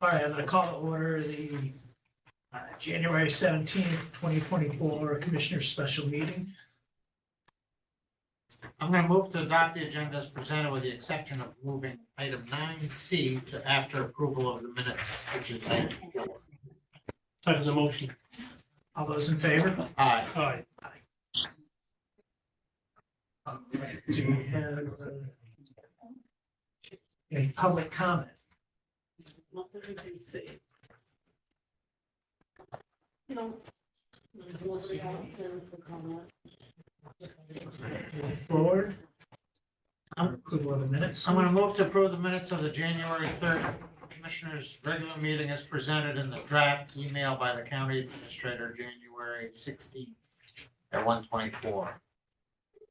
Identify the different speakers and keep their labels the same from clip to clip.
Speaker 1: All right, I'm gonna call to order the uh, January seventeenth, twenty twenty-four Commissioner's Special Meeting.
Speaker 2: I'm gonna move to adopt the agenda as presented with the exception of moving item nine C to after approval of the minutes, which is item four.
Speaker 3: Second the motion.
Speaker 1: All those in favor?
Speaker 2: Aye.
Speaker 3: Aye.
Speaker 1: All right, Do we have uh, any public comment?
Speaker 4: Not that I can see. You know. mostly I don't care for comment.
Speaker 1: Moving Forward. Approval of the minutes.
Speaker 2: I'm gonna move to approve the minutes of the January third Commissioners' regular meeting as presented in the draft email by the county administrator, January sixteenth at one twenty-four.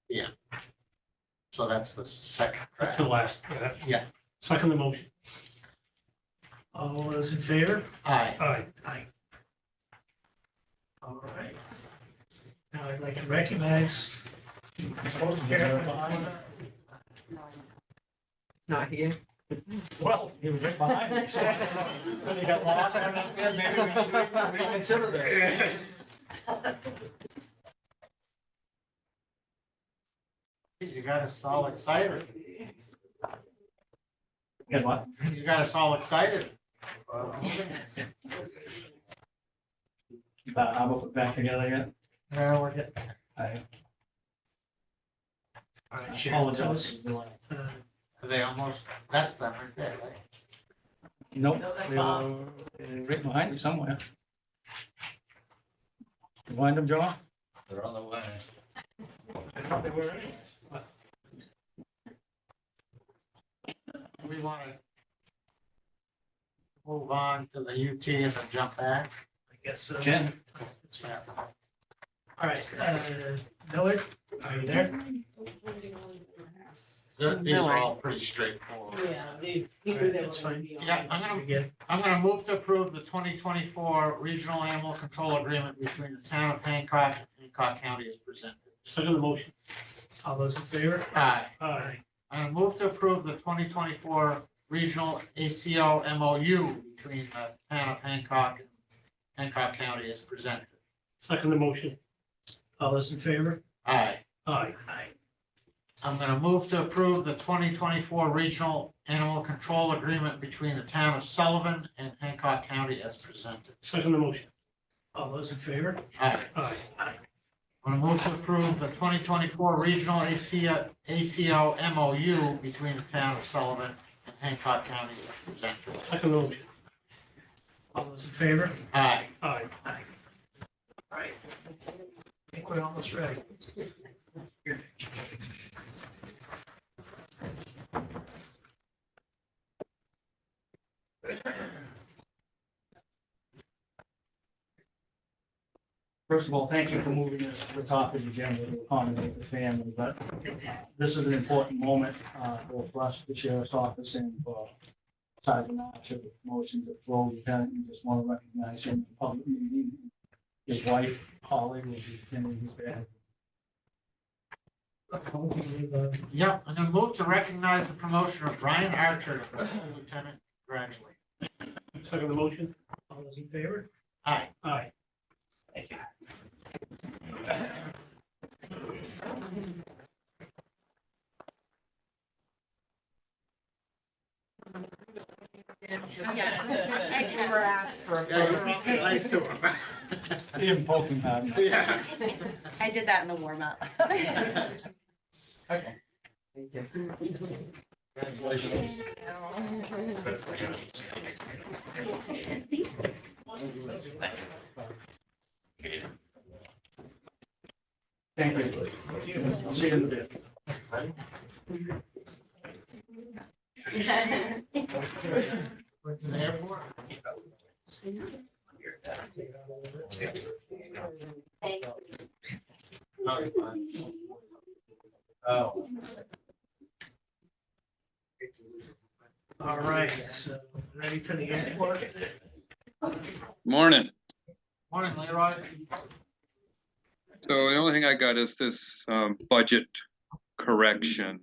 Speaker 2: Yeah. So that's the second
Speaker 3: That's
Speaker 2: draft.
Speaker 3: the last.
Speaker 2: Yeah.
Speaker 3: Second the motion.
Speaker 1: All those in favor?
Speaker 2: Aye.
Speaker 3: Aye.
Speaker 1: Aye. All right. Now I'd like to recognize.
Speaker 5: Not here.
Speaker 1: Well, you were right behind me. so-
Speaker 2: You got lost? Maybe we can reconsider this. You got us all excited. You got us all excited.
Speaker 6: Uh, I'm up back uh, together yet.
Speaker 2: Now we're getting,
Speaker 6: I
Speaker 1: All right, Sharon, tell us,
Speaker 6: apologize. for the delay.
Speaker 1: uh,
Speaker 2: they almost, that's them right there, right?
Speaker 6: Nope,
Speaker 5: No, that's
Speaker 6: they were uh, right behind me somewhere. You Find them, John?
Speaker 7: They're on the way.
Speaker 2: We want to move on to the UT and then jump back.
Speaker 1: I guess, uh,
Speaker 6: Ken?
Speaker 1: all right, uh, Miller, are you there?
Speaker 2: They're- These are all pretty straightforward.
Speaker 4: Yeah, these,
Speaker 1: All
Speaker 4: you knew
Speaker 1: right,
Speaker 4: they were
Speaker 1: that's
Speaker 4: gonna
Speaker 1: fine.
Speaker 4: be on.
Speaker 2: Yeah, I'm
Speaker 1: Should
Speaker 2: gonna,
Speaker 1: we get-
Speaker 2: I'm gonna move to approve the twenty twenty-four regional animal control agreement between the town of Hancock and Hancock County as presented.
Speaker 3: Second the motion.
Speaker 1: All those in favor?
Speaker 2: Aye.
Speaker 3: Aye.
Speaker 2: I move to approve the twenty twenty-four regional ACO MOU between the town of Hancock and Hancock County as presented.
Speaker 3: Second the motion.
Speaker 1: All those in favor?
Speaker 2: Aye.
Speaker 3: Aye.
Speaker 1: Aye.
Speaker 2: I'm gonna move to approve the twenty twenty-four regional animal control agreement between the town of Sullivan and Hancock County as presented.
Speaker 3: Second the motion.
Speaker 1: All those in favor?
Speaker 2: Aye.
Speaker 3: Aye.
Speaker 2: I'm gonna move to approve the twenty twenty-four regional ACO, ACO MOU between the town of Sullivan and Hancock County as presented.
Speaker 3: Second the motion.
Speaker 1: All those in favor?
Speaker 2: Aye.
Speaker 3: Aye.
Speaker 1: All right. I think we're almost ready.
Speaker 6: First of all, thank you for moving this to the top of the agenda to accommodate the family, but uh, this is an important moment uh, both for us, the sheriff's office and for Sergeant Archer, the motion to throw lieutenant, and just want to recognize him in public meeting. His wife Holly will be attending his bed.
Speaker 2: Yep, I'm gonna move to recognize the promotion of Brian Archer to full lieutenant gradually.
Speaker 3: Second the motion.
Speaker 1: All those in favor?
Speaker 2: Aye.
Speaker 3: Aye.
Speaker 4: Yeah.
Speaker 5: I never asked for a photo.
Speaker 2: Nice to him.
Speaker 6: He didn't poke him, Harvey.
Speaker 2: Yeah.
Speaker 8: I did that in the warm up.
Speaker 2: Congratulations.
Speaker 6: Thank you. I'll See you in a bit.
Speaker 2: Went to the airport.
Speaker 7: Oh.
Speaker 1: All right, so ready for the airport?
Speaker 9: Morning.
Speaker 2: Morning, Leroy.
Speaker 9: So the only thing I got is this um, budget correction.